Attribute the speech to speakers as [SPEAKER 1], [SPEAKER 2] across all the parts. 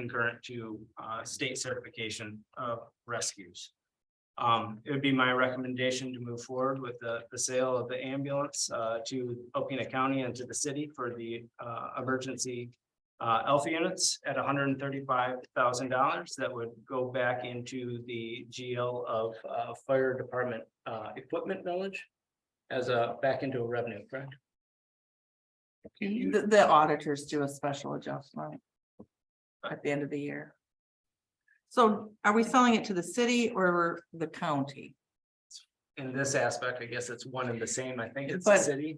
[SPEAKER 1] concurrent to uh state certification of rescues. Um, it would be my recommendation to move forward with the the sale of the ambulance uh to Alpena County and to the city for the uh emergency. Uh, ELF units at hundred and thirty-five thousand dollars that would go back into the GL of uh fire department uh equipment village. As a back into a revenue, correct? Can you-
[SPEAKER 2] The, the auditors do a special adjustment. At the end of the year. So are we selling it to the city or the county?
[SPEAKER 1] in this aspect, I guess it's one and the same. I think it's the
[SPEAKER 2] But-
[SPEAKER 1] city.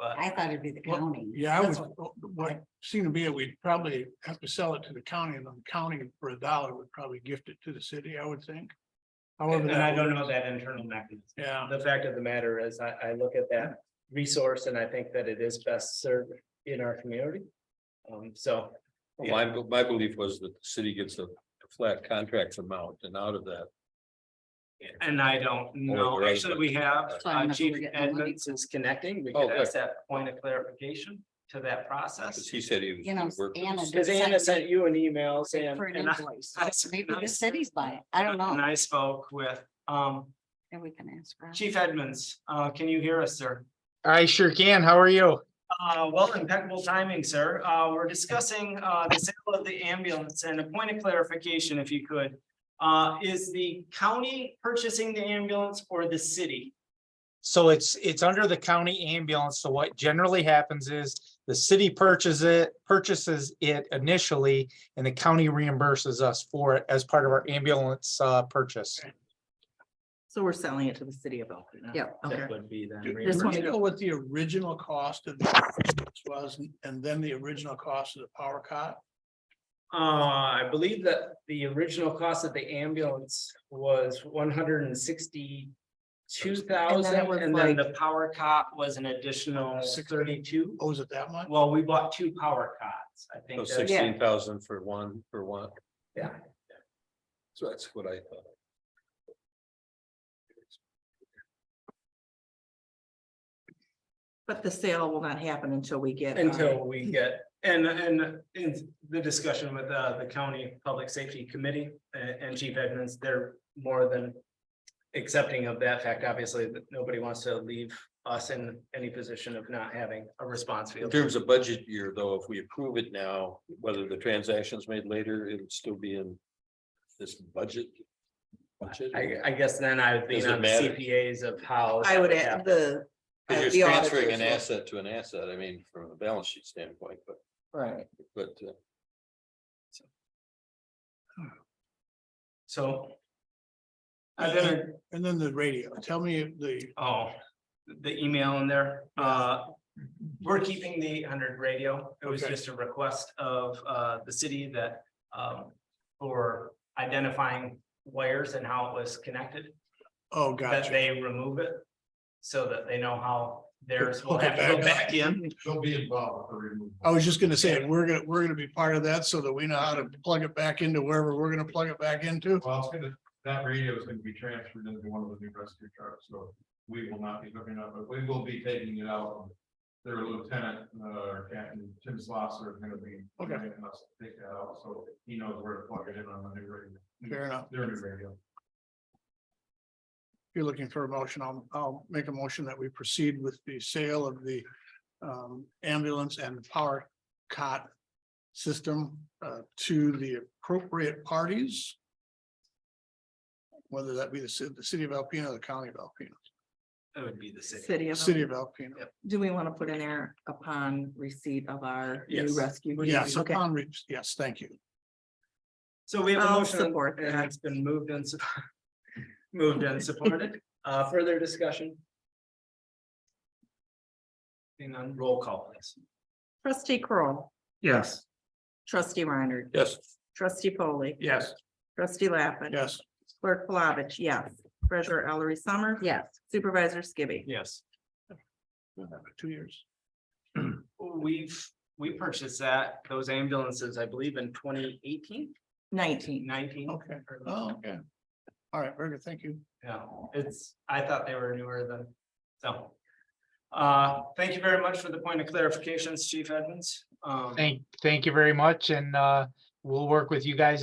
[SPEAKER 1] But
[SPEAKER 3] I thought it'd be the
[SPEAKER 4] Well,
[SPEAKER 3] county.
[SPEAKER 4] Yeah, I
[SPEAKER 3] That's
[SPEAKER 4] would, oh, what seemed to be it, we'd probably have to sell it to the county and then the county for a dollar would probably gift it to the city, I would think. However,
[SPEAKER 1] and I
[SPEAKER 4] that
[SPEAKER 1] don't
[SPEAKER 4] would-
[SPEAKER 1] know that internal mechanism.
[SPEAKER 4] yeah,
[SPEAKER 1] The fact of the matter is, I, I look at that resource and I think that it is best served in our community. Um, so
[SPEAKER 5] Well, My, my belief was that the city gets a flat contract amount and out of that.
[SPEAKER 1] And I don't know,
[SPEAKER 5] we're out of
[SPEAKER 1] actually,
[SPEAKER 5] it.
[SPEAKER 1] we have,
[SPEAKER 3] So I'm
[SPEAKER 1] uh,
[SPEAKER 3] not sure
[SPEAKER 1] Chief
[SPEAKER 3] we're getting the money.
[SPEAKER 1] Edmonds is connecting, we
[SPEAKER 5] Oh,
[SPEAKER 1] could ask that point of clarification to that process.
[SPEAKER 5] Cause he said he. was-
[SPEAKER 3] You know,
[SPEAKER 5] worked with
[SPEAKER 3] Anna
[SPEAKER 5] the city.
[SPEAKER 1] Cause Anna sent you an email saying.
[SPEAKER 3] For an
[SPEAKER 1] and I-
[SPEAKER 3] invoice,
[SPEAKER 1] I-
[SPEAKER 3] so maybe
[SPEAKER 1] I-
[SPEAKER 3] the city's buying, it. I don't
[SPEAKER 1] And
[SPEAKER 3] know,
[SPEAKER 1] I spoke with, um,
[SPEAKER 3] and we can ask. Rob.
[SPEAKER 1] Chief Edmonds, uh, can you hear us, sir?
[SPEAKER 6] I sure can. How are you?
[SPEAKER 1] Uh, well, impeccable timing, sir. Uh, we're discussing, uh, the sale of the ambulance and a point of clarification, if you could. Uh, is the county purchasing the ambulance or the city?
[SPEAKER 6] So it's, it's under the county ambulance. So what generally happens is the city purchases it, purchases it initially and the county reimburses us for it as part of our ambulance uh, purchase.
[SPEAKER 2] So we're selling it to the city of Alpena.
[SPEAKER 3] Yep.
[SPEAKER 2] Okay.
[SPEAKER 1] That would be then.
[SPEAKER 4] Do do
[SPEAKER 2] This one-
[SPEAKER 4] you know what the original cost of the was and then the original cost of the power cot?
[SPEAKER 1] Uh, I believe that the original cost of the ambulance was one hundred and sixty-two
[SPEAKER 2] And then it
[SPEAKER 1] thousand,
[SPEAKER 2] was
[SPEAKER 1] and then
[SPEAKER 2] like-
[SPEAKER 1] the power cot was an additional
[SPEAKER 4] Six-
[SPEAKER 1] thirty-two.
[SPEAKER 4] Oh, is it that much?
[SPEAKER 1] Well, we bought two power cots, I
[SPEAKER 5] So
[SPEAKER 1] think. that's-
[SPEAKER 5] oh, sixteen thousand for one, for one.
[SPEAKER 1] Yeah.
[SPEAKER 5] So that's what I thought.
[SPEAKER 2] But the sale will not happen until we get. um,
[SPEAKER 1] Until we get, and, and in the discussion with, uh, the county public safety committee and, and chief Edmonds, they're more than. Accepting of that fact, obviously, that nobody wants to leave us in any position of not having a response
[SPEAKER 5] In
[SPEAKER 1] field.
[SPEAKER 5] terms of budget year, though, if we approve it now, whether the transaction's made later, it'll still be in this budget. budget.
[SPEAKER 1] I, I guess then I would lean
[SPEAKER 5] Does it
[SPEAKER 1] on the
[SPEAKER 5] matter?
[SPEAKER 1] CPAs of how.
[SPEAKER 2] I would
[SPEAKER 1] that
[SPEAKER 2] add
[SPEAKER 1] happened.
[SPEAKER 2] the. uh,
[SPEAKER 5] Cause
[SPEAKER 2] the
[SPEAKER 5] you're transferring
[SPEAKER 2] auditors
[SPEAKER 5] an
[SPEAKER 2] will-
[SPEAKER 5] asset to an asset, I mean, from a balance sheet standpoint, but,
[SPEAKER 2] Right.
[SPEAKER 5] but uh,
[SPEAKER 1] So. I've been,
[SPEAKER 4] And then the radio, tell me the,
[SPEAKER 1] oh, the email in there, uh, we're keeping the eight hundred radio. It was
[SPEAKER 4] Okay.
[SPEAKER 1] just a request of, uh, the city that, um, for identifying wires and how it was connected,
[SPEAKER 4] oh,
[SPEAKER 1] that
[SPEAKER 4] gotcha.
[SPEAKER 1] they remove it so that they know how theirs will
[SPEAKER 4] Pull it
[SPEAKER 1] have to go
[SPEAKER 4] back up.
[SPEAKER 1] back in.
[SPEAKER 7] They'll be involved for removal.
[SPEAKER 4] I was just gonna say, we're gonna, we're gonna be part of that so that we know how to plug it back into wherever we're gonna plug it back into.
[SPEAKER 7] Well, it's gonna, that radio is gonna be transferred into one of the new rescue trucks, so we will not be hooking up, but we will be taking it out. Their lieutenant, uh, Captain Tim Slosser is gonna be.
[SPEAKER 4] Okay.
[SPEAKER 7] letting us Take that out, so he knows where to plug it in on the new radio.
[SPEAKER 4] Fair enough.
[SPEAKER 7] Their new radio.
[SPEAKER 4] If you're looking for a motion, I'll, I'll make a motion that we proceed with the sale of the um, ambulance and power cot system uh, to the appropriate parties. Whether that be the city, the city of Alpena or the county of Alpena,
[SPEAKER 1] It would be the city.
[SPEAKER 2] City of.
[SPEAKER 4] city of Alpena.
[SPEAKER 1] Yep.
[SPEAKER 2] Do we want to put in there upon receipt of our new
[SPEAKER 1] Yes.
[SPEAKER 2] rescue?
[SPEAKER 4] Yes,
[SPEAKER 2] Okay.
[SPEAKER 4] upon re- yes, thank you.
[SPEAKER 1] So we have a
[SPEAKER 2] I'll
[SPEAKER 1] motion
[SPEAKER 2] support
[SPEAKER 1] and
[SPEAKER 2] that.
[SPEAKER 1] it's been moved and sup- moved and supported. Uh, further discussion? Being on roll call, please.
[SPEAKER 2] Trustee Kroll,
[SPEAKER 4] Yes.
[SPEAKER 2] trustee Reiner,
[SPEAKER 5] yes,
[SPEAKER 2] trustee Polly,
[SPEAKER 4] Yes.
[SPEAKER 2] trustee Lappin.
[SPEAKER 4] Yes.
[SPEAKER 2] Clerk Flavich, yes. Treasurer Ellery Summers.
[SPEAKER 3] Yes,
[SPEAKER 2] Supervisor Skibby.
[SPEAKER 1] Yes.
[SPEAKER 4] Two years.
[SPEAKER 1] We've, we purchased that, those ambulances, I believe in 2018,
[SPEAKER 2] Nineteen.
[SPEAKER 1] 19.
[SPEAKER 4] Okay. Oh, okay. All right, very good. Thank you.
[SPEAKER 1] Yeah, it's, I thought they were newer than, so. Uh, thank you very much for the point of clarifications, Chief Edmonds. Um,
[SPEAKER 6] Thank, thank you very much. And uh, we'll work with you guys